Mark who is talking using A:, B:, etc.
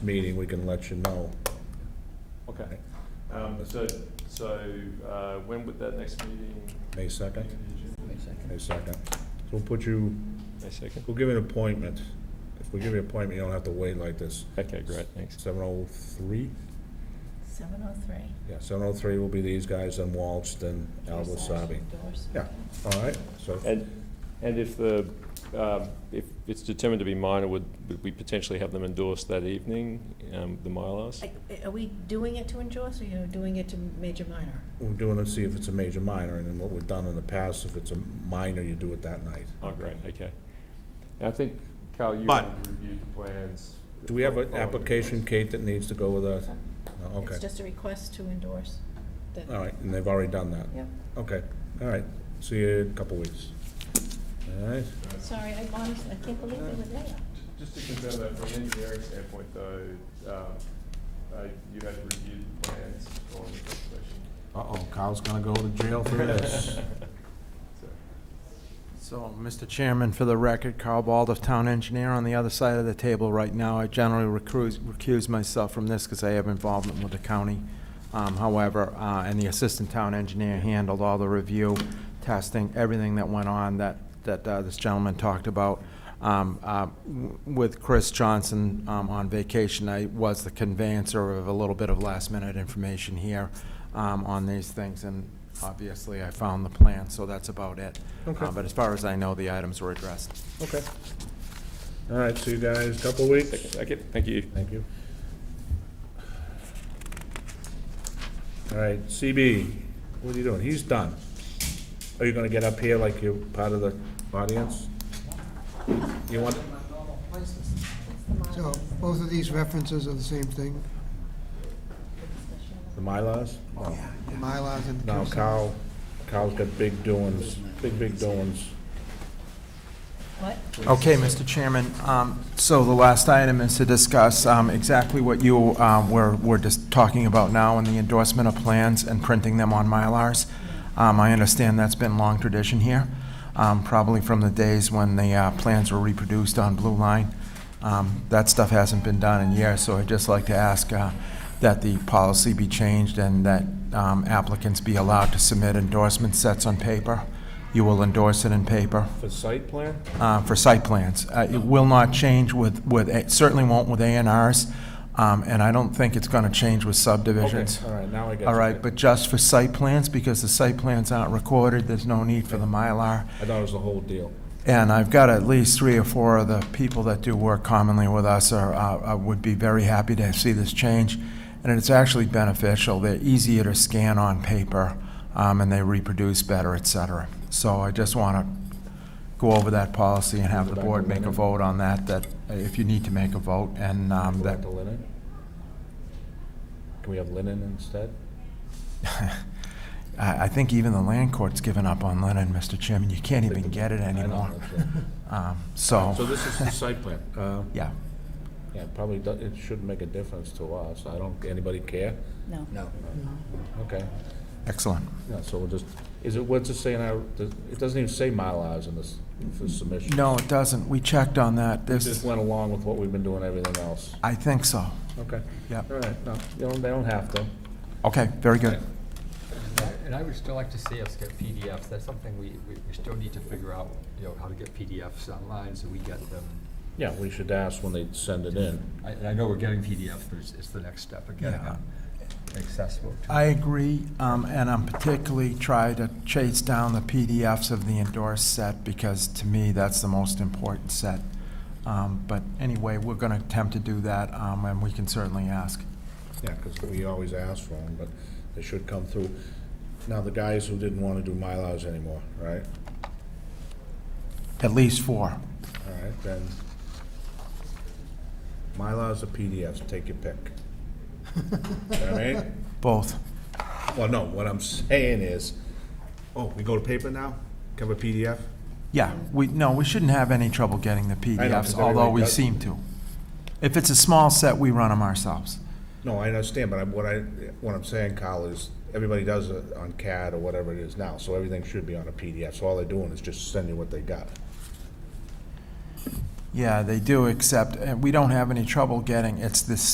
A: meeting, we can let you know.
B: Okay. Um, so, so, uh, when would that next meeting?
A: May second? May second. So we'll put you,
B: May second?
A: we'll give you an appointment. If we give you an appointment, you don't have to wait like this.
B: Okay, great, thanks.
A: Seven oh three?
C: Seven oh three.
A: Yeah, seven oh three will be these guys, then Waltz, then Al Wasabi. Yeah, all right, so,
B: And, and if the, um, if it's determined to be minor, would, would we potentially have them endorsed that evening, um, the Mylars?
C: Are we doing it to endorse, or you're doing it to major minor?
A: we're doing it, see if it's a major, minor, and then what we've done in the past, if it's a minor, you do it that night.
B: Oh, great, okay. And I think, Carl, you
A: But-
B: reviewed the plans.
A: Do we have an
B: Oh,
A: application, Kate, that needs to go with us? No,
C: It's
A: Okay,
C: just a request to endorse. that-
A: all right, and they've already done that?
C: Yep.
A: Okay, all right, see you in a couple weeks. All right,
C: Sorry, I honestly, I can't believe they were there.
B: Just to confirm that from an engineering standpoint though, um, uh, you had reviewed the plans on the presentation?
A: uh-oh, Kyle's gonna go to jail for this.
B: So,
D: So, Mr. Chairman, for the record, Carl Baldoff, Town Engineer, on the other side of the table right now. I generally recuse recuse myself from this because I have involvement with the county. Um, However, uh, and the Assistant Town Engineer handled all the review, testing, everything that went on that, that uh, this gentleman talked about. Um, uh, w- With Chris Johnson um, on vacation, I was the conveyancer of a little bit of last-minute information here um, on these things, and obviously, I found the plan, so that's about it.
A: Okay.
D: Uh, But as far as I know, the items were addressed.
A: Okay. All right, see you guys, couple weeks.
B: Second, okay, thank you.
A: Thank you. All right, CB, what are you doing? He's done. Are you gonna get up here like you're part of the audience? You want,
E: So both of these references are the same thing,
A: the Mylars? No.
E: the Mylars and the
A: No, Kyle, Kyle's got big doings, big, big doings.
C: What?
D: Okay, Mr. Chairman, um, so the last item is to discuss um, exactly what you um, were, were just talking about now in the endorsement of plans and printing them on Mylars. Um, I understand that's been long tradition here, um, probably from the days when the uh, plans were reproduced on Blue Line. Um, That stuff hasn't been done in years, so I'd just like to ask uh, that the policy be changed and that um, applicants be allowed to submit endorsement sets on paper. You will endorse it in paper
A: For site plan?
D: uh, for site plans. Uh, It will not change with, with, it certainly won't with A and Rs, um, and I don't think it's going to change with
A: Okay,
D: subdivisions.
A: all right, now I get you.
D: All right, but just for site plans, because the site plans aren't recorded, there's no need for the Mylar.
A: I thought it was the whole deal.
D: And I've got at least three or four of the people that do work commonly with us are, uh, uh, would be very happy to see this change. And it's actually beneficial. They're easier to scan on paper, um, and they reproduce better, et cetera. So I just want to go over that policy and have the board make a vote on that, that uh, if you need to make a vote, and um,
A: Go
D: that,
A: back to linen? Can we have linen instead?
D: I I think even the land court's given up on Lennon, Mr. Chairman. You can't even get it
A: I don't
D: anymore.
A: know, so-
D: Um,
A: So
D: So,
A: this is the site plan. Uh,
D: yeah.
A: Yeah, it probably, do- it shouldn't make a difference to us. I don't, anybody care?
C: No.
A: Okay.
D: Excellent.
A: Yeah, so we'll just, is it, what's it say in our, does- it doesn't even say mile hours in this, for submission.
D: No, it doesn't. We checked on that.
A: It Just
D: This,
A: went along with what we've been doing, everything else.
D: I think so.
A: Okay.
D: Yeah.
A: All right, no, they don't, they don't have to.
D: Okay, very good.
F: And I would still like to see us get PDFs, that's something we, we we still need to figure out, you know, how to get PDFs online, so we get them.
A: Yeah, we should ask when they send it in.
F: I, and I know we're getting PDFs, but it's, it's the next step of getting
D: Yeah.
F: them accessible to.
D: I agree, um, and I'm particularly trying to chase down the PDFs of the endorsed set because to me, that's the most important set. Um, But anyway, we're going to attempt to do that, um, and we can certainly ask.
A: Yeah, because we always ask for them, but they should come through. Now, the guys who didn't want to do mile hours anymore, right?
D: At least four.
A: All right, then. Mylars or PDFs, take your pick. You know what I mean?
D: Both.
A: Well, no, what I'm saying is, oh, we go to paper now? Cover PDF?
D: Yeah, we, no, we shouldn't have any trouble getting the
A: 'cause
D: PDFs,
A: everybody
D: although we
A: does.
D: seem to. If it's a small set, we run them ourselves.
A: No, I understand, but I- what I, what I'm saying, Kyle, is everybody does it on CAD or whatever it is now, so everything should be on a PDF. So all they're doing is just sending what they got.
D: Yeah, they do, except uh, we don't have any trouble getting, it's this